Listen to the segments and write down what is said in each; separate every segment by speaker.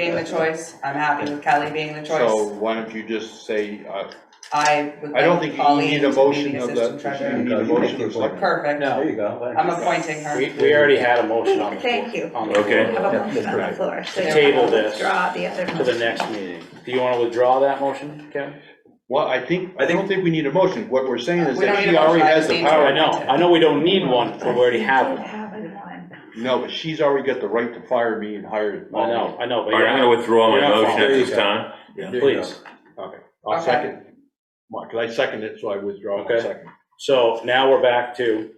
Speaker 1: being the choice, I'm happy with Kelly being the
Speaker 2: So
Speaker 1: choice.
Speaker 2: why don't you just say, uh,
Speaker 1: I would
Speaker 2: I don't
Speaker 1: like
Speaker 2: think you
Speaker 1: Colleen
Speaker 2: need a
Speaker 1: to be
Speaker 2: motion
Speaker 1: the
Speaker 2: of
Speaker 1: assistant
Speaker 2: the, you
Speaker 1: treasurer.
Speaker 2: need a motion of the select.
Speaker 1: Perfect,
Speaker 3: No.
Speaker 4: There you go. There you
Speaker 1: I'm
Speaker 4: go.
Speaker 1: appointing her.
Speaker 3: We, we already had a motion on the floor.
Speaker 5: Thank you.
Speaker 3: on the floor
Speaker 6: Okay.
Speaker 5: Have a motion on the floor. so
Speaker 3: To
Speaker 5: you're
Speaker 3: table
Speaker 5: gonna
Speaker 3: this
Speaker 5: Withdraw the other.
Speaker 3: To the next meeting. Do you want to withdraw that motion, Kevin?
Speaker 2: Well, I think, I don't think we need a motion, what we're saying is
Speaker 1: We don't
Speaker 2: that
Speaker 1: need
Speaker 2: she
Speaker 1: a motion,
Speaker 2: already
Speaker 1: I
Speaker 2: has
Speaker 1: just
Speaker 2: the
Speaker 1: need to-
Speaker 2: power.
Speaker 3: Oh, I know, I know we don't need one, but we already have one.
Speaker 5: Have it on.
Speaker 2: No, but she's already got the right to fire me and hire.
Speaker 3: I know, I know, but
Speaker 6: All right, I'm gonna
Speaker 3: you're,
Speaker 6: withdraw
Speaker 3: You're
Speaker 6: my
Speaker 3: not
Speaker 6: motion at
Speaker 3: following.
Speaker 6: this time.
Speaker 4: There you go.
Speaker 3: please.
Speaker 2: I'll
Speaker 1: Okay.
Speaker 2: second. Mark, I second it, so I withdraw my
Speaker 3: Okay.
Speaker 2: second.
Speaker 3: So now we're back to,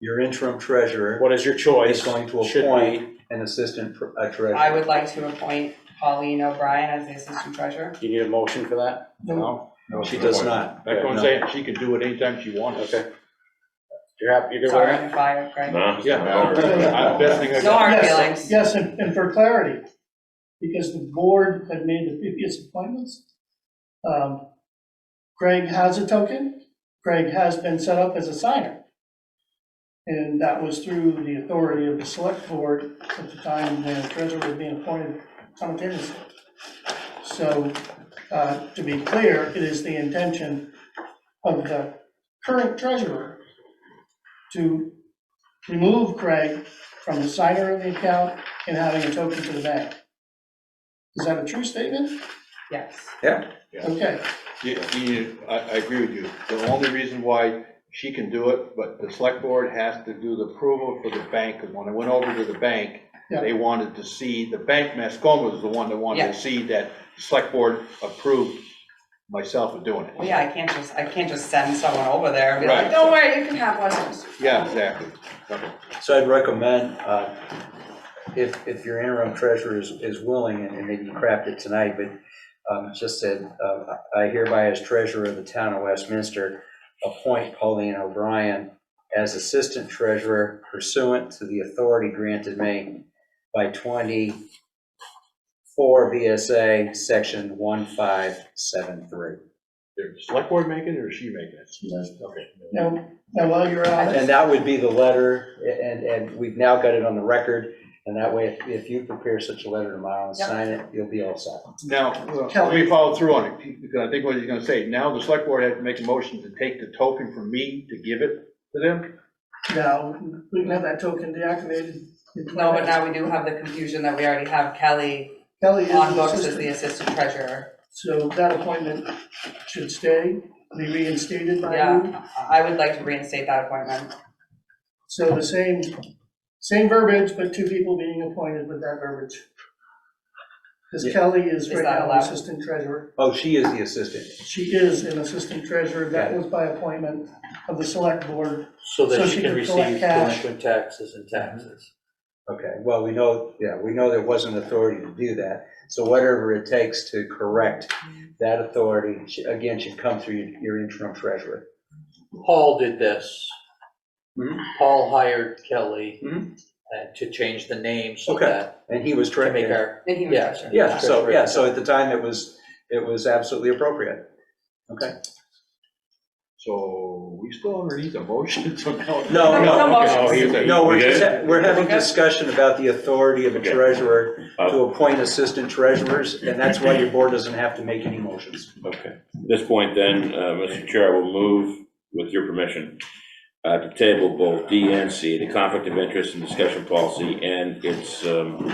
Speaker 4: Your interim treasurer
Speaker 3: what is your choice?
Speaker 4: is going to
Speaker 3: Should
Speaker 4: appoint an assistant tr- uh,
Speaker 1: I
Speaker 4: treasurer.
Speaker 1: would like to appoint Colleen O'Brien as the assistant treasurer.
Speaker 3: Do you need a motion for that?
Speaker 2: No, no,
Speaker 4: She does not.
Speaker 2: That's what I'm saying, she can do it anytime she wants.
Speaker 3: Okay. You're happy, you're good with
Speaker 1: Sorry,
Speaker 3: that?
Speaker 1: I'm fired, Greg.
Speaker 6: No?
Speaker 2: Yeah. I- Best thing I
Speaker 1: No
Speaker 2: got.
Speaker 1: hard
Speaker 7: Yes,
Speaker 1: feelings.
Speaker 7: Yes, and, and for clarity, because the board had made the previous appointments, um, Greg has a token, Greg has been set up as a signer. And that was through the authority of the select board at the time the treasurer was being appointed simultaneously. So, uh, to be clear, it is the intention of the current treasurer to remove Greg from the signer of the account and having a token to the bank. Is that a true statement?
Speaker 1: Yes.
Speaker 7: Okay,
Speaker 2: You- you- I, I agree with you. The only reason why she can do it, but the select board has to do the approval for the bank. Because when I went over to the bank,
Speaker 7: Yeah.
Speaker 2: they wanted to see, the bank, Mascoma was the one that wanted
Speaker 1: Yeah.
Speaker 2: to see that select board approved myself of doing
Speaker 1: Well,
Speaker 2: it.
Speaker 1: yeah, I can't just, I can't just send someone over there and be like,
Speaker 2: Right.
Speaker 1: don't worry, you can have Westers.
Speaker 2: Yeah, exactly. Okay.
Speaker 4: So I'd recommend, uh, if, if your interim treasurer is, is willing, and and maybe you craft it tonight, but um, just said, uh, I hereby as treasurer of the town of Westminster, appoint Pauline O'Brien as assistant treasurer pursuant to the authority granted me by 24 VSA, section 1573.
Speaker 2: Did the select board make it or she make it? Okay.
Speaker 7: now, now while you're at
Speaker 4: And
Speaker 7: it,
Speaker 4: that would be the letter, and, and we've now got it on the record, and that way, if- if you prepare such a letter tomorrow and
Speaker 1: Yep.
Speaker 4: sign it, you'll be all set.
Speaker 2: Now, let me follow through on it, because I think what he's gonna say, now the select board had to make a motion to take the token from me to give it to them?
Speaker 7: now, we can have that token deactivated.
Speaker 1: No, but now we do have the confusion that we already have Kelly
Speaker 7: Kelly is
Speaker 1: on
Speaker 7: the
Speaker 1: books as the
Speaker 7: assistant,
Speaker 1: assistant treasurer.
Speaker 7: so that appointment should stay, be reinstated by you.
Speaker 1: Yeah, I would like to reinstate that appointment.
Speaker 7: So the same, same verbiage, but two people being appointed with that verbiage. Because
Speaker 4: Yeah.
Speaker 7: Kelly is
Speaker 1: Is
Speaker 7: right
Speaker 1: that
Speaker 7: now
Speaker 1: allowed?
Speaker 7: assistant treasurer.
Speaker 4: Oh, she is the assistant.
Speaker 7: She is an assistant treasurer, that was by appointment of the select board
Speaker 3: So
Speaker 7: that So she she can can collect receive cash.
Speaker 3: taxes and taxes.
Speaker 4: Okay, well, we know, yeah, we know there wasn't authority to do that, so whatever it takes to correct that authority, sh- again, should come through your- your interim treasurer.
Speaker 8: Paul did this.
Speaker 4: Mhm.
Speaker 8: Paul hired Kelly
Speaker 4: Mhm.
Speaker 8: uh, to change the name so
Speaker 4: Okay.
Speaker 8: that,
Speaker 4: And he was
Speaker 8: to
Speaker 4: trying
Speaker 8: make our,
Speaker 1: And he was
Speaker 8: Yeah,
Speaker 1: treasurer.
Speaker 4: Yeah, so, yeah, so at the time, it was, it was absolutely appropriate. Okay.
Speaker 2: So, we still underneath a motion, so now.
Speaker 4: No,
Speaker 1: no, no motion.
Speaker 2: Okay, here's it.
Speaker 4: No, we're
Speaker 6: Okay.
Speaker 4: just, we're having
Speaker 1: Okay.
Speaker 4: discussion about the authority of a
Speaker 6: Okay.
Speaker 4: treasurer to
Speaker 6: Uh,
Speaker 4: appoint assistant treasurers, and that's why your board doesn't have to make any motions.
Speaker 6: Okay. At this point then, uh, Mr. Chair, I will move, with your permission, uh, to table both DNC, the conflict of interest and discussion policy, and its um,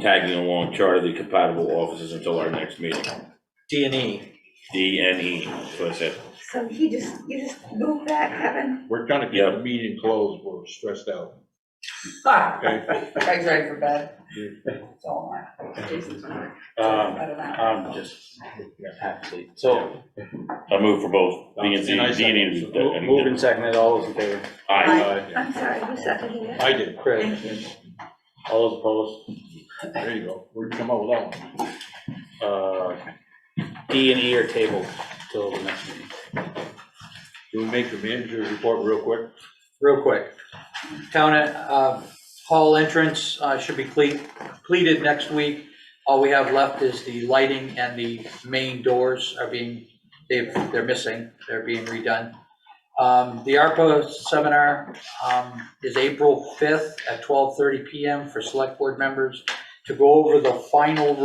Speaker 6: tagging along chart of the compatible offices until our next meeting.
Speaker 8: D and E.
Speaker 6: DNE, that's what I said.
Speaker 5: So he just, you just move that, Kevin?
Speaker 2: We're trying to get the meeting closed, we're stressed out. Okay,
Speaker 1: Greg's ready for bed. So am I. Jason's ready for
Speaker 3: Um,
Speaker 1: bed and I.
Speaker 3: I'm just, so,
Speaker 6: I move for both DNC,
Speaker 2: And I second.
Speaker 6: DNE.
Speaker 3: mo-
Speaker 6: and-
Speaker 3: moving seconded, all those in favor?
Speaker 6: Aye.
Speaker 2: I
Speaker 5: I'm sorry, who seconded it?
Speaker 2: I did,
Speaker 3: Chris, all those opposed?
Speaker 2: there you go, we're gonna come up with that one.
Speaker 3: uh, D and E are tabled till the next meeting.
Speaker 2: Can we make the manager's report real quick?
Speaker 8: Real quick, town, uh, hall entrance, uh, should be cle- completed next week. All we have left is the lighting and the main doors are being, they've, they're missing, they're being redone. Um, the ARPA seminar, um, is April fifth at twelve thirty PM for select board members to go over the final